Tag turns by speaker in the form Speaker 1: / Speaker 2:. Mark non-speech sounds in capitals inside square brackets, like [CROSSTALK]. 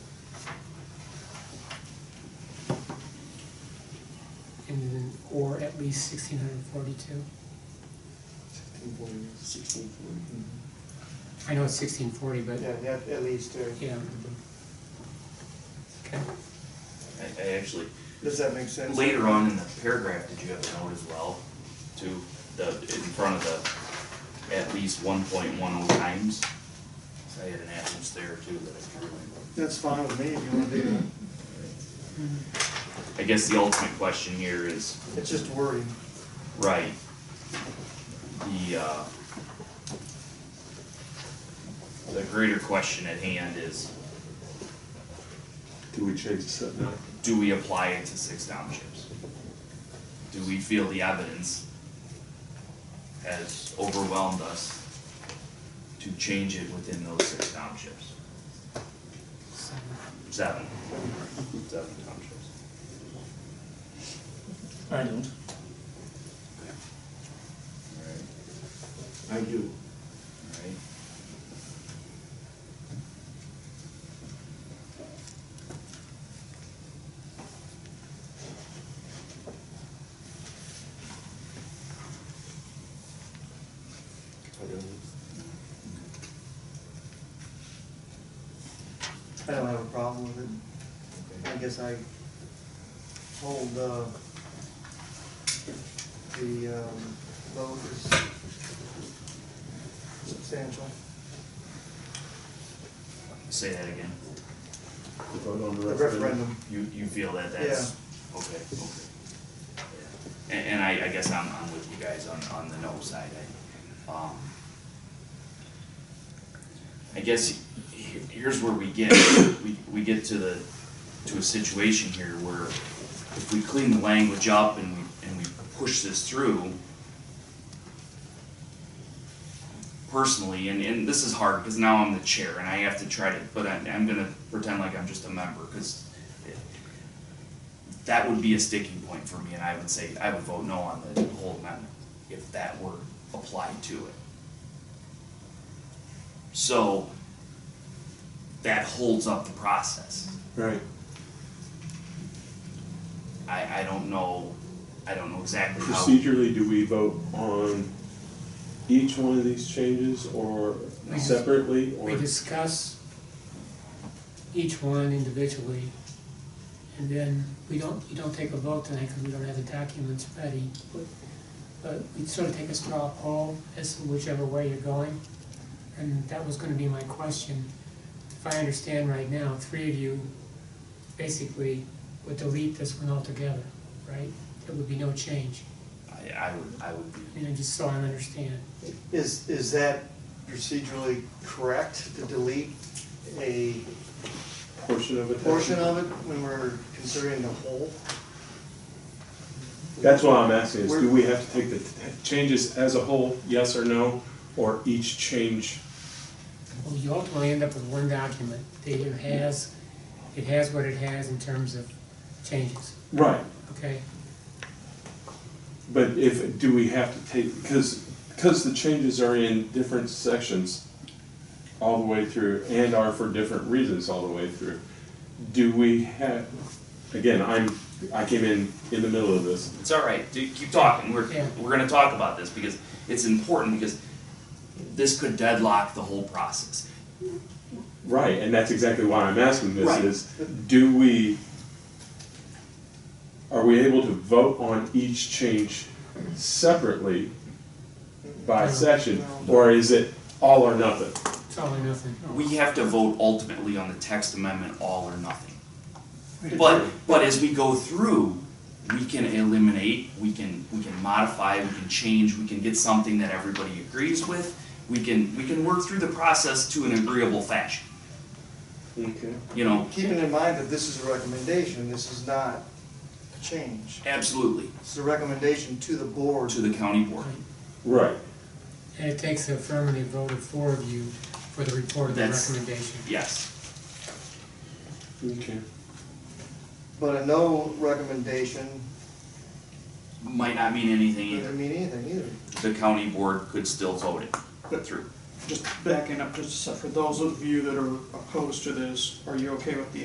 Speaker 1: least sixteen hundred forty-two.
Speaker 2: Sixteen forty.
Speaker 3: sixteen forty.
Speaker 1: I know it's sixteen forty, but,
Speaker 2: Yeah, that, at least, uh,
Speaker 1: yeah. Okay,
Speaker 4: I, I actually,
Speaker 2: does that make sense?
Speaker 4: later on in the paragraph, did you have a note as well? To the, in front of the, at least one point one oh times? So I had an absence there too that I drew in.
Speaker 2: That's fine with me, if you wanna do that.
Speaker 4: I guess the ultimate question here is,
Speaker 2: It's just wording.
Speaker 4: right, the, uh, the greater question at hand is,
Speaker 3: Do we change the setback?
Speaker 4: do we apply it to six townships? Do we feel the evidence has overwhelmed us to change it within those six townships?
Speaker 1: so,
Speaker 4: Seven, seven townships.
Speaker 5: I don't.
Speaker 4: Alright,
Speaker 3: I do.
Speaker 4: alright.
Speaker 2: I don't have a problem with it. I guess I hold, uh, the, um, vote is substantial.
Speaker 4: Say that again.
Speaker 3: The vote on the
Speaker 2: The
Speaker 3: referendum?
Speaker 2: referendum,
Speaker 4: You, you feel that that's, okay, okay. Yeah. And, and I, I guess I'm, I'm with you guys on, on the no side, I, um. I guess he- here's where we get, [COUGHS] we, we get to the, to a situation here where if we clean the language up and we, and we push this through, personally, and, and this is hard because now I'm the chair and I have to try to, but I, I'm gonna pretend like I'm just a member because that would be a sticking point for me and I would say, I would vote no on the whole amendment if that were applied to it. So that holds up the process.
Speaker 3: Right.
Speaker 4: I, I don't know, I don't know exactly how.
Speaker 3: Procedurally, do we vote on each one of these changes or
Speaker 1: No.
Speaker 3: separately or?
Speaker 1: We discuss each one individually, and then we don't, you don't take a vote tonight because we don't have the documents ready. but- But we sort of take a straw poll as to whichever way you're going, and that was gonna be my question. If I understand right now, three of you basically would delete this one altogether, right? There would be no change,
Speaker 4: I, I would, I would be
Speaker 1: I mean, I just so I understand.
Speaker 2: is, is that procedurally correct to delete a
Speaker 3: Portion of it?
Speaker 2: portion of it when we're considering the whole?
Speaker 3: That's what I'm asking, is do we have to take the t- changes as a whole, yes or no, or each change?
Speaker 1: Well, you ultimately end up with one document that either has, it has what it has in terms of changes,
Speaker 3: Right.
Speaker 1: okay?
Speaker 3: But if, do we have to take, because, because the changes are in different sections all the way through and are for different reasons all the way through, do we have, again, I'm, I came in in the middle of this.
Speaker 4: It's all right. Dude, keep talking. We're
Speaker 1: Yeah.
Speaker 4: we're gonna talk about this because it's important because this could deadlock the whole process.
Speaker 3: Right, and that's exactly why I'm asking this
Speaker 4: Right.
Speaker 3: is, do we, are we able to vote on each change separately by
Speaker 1: No.
Speaker 3: section, or is it all or nothing?
Speaker 1: It's all or nothing.
Speaker 4: We have to vote ultimately on the text amendment, all or nothing. But but as we go through, we can eliminate, we can we can modify, we can change, we can get something that everybody agrees with. We can we can work through the process to an agreeable fashion.
Speaker 3: Okay.
Speaker 4: You know,
Speaker 2: Keeping in mind that this is a recommendation, this is not a change.
Speaker 4: absolutely
Speaker 2: It's a recommendation to the board.
Speaker 4: to the county board.
Speaker 3: Right,
Speaker 1: And it takes the affirmative vote of four of you for the report of the
Speaker 4: That's-
Speaker 1: recommendation.
Speaker 4: Yes.
Speaker 3: okay.
Speaker 2: But a no recommendation
Speaker 4: Might not mean anything either.
Speaker 2: doesn't mean anything either.
Speaker 4: the county board could still vote it through.
Speaker 6: Just backing up just a sec, for those of you that are opposed to this, are you okay with the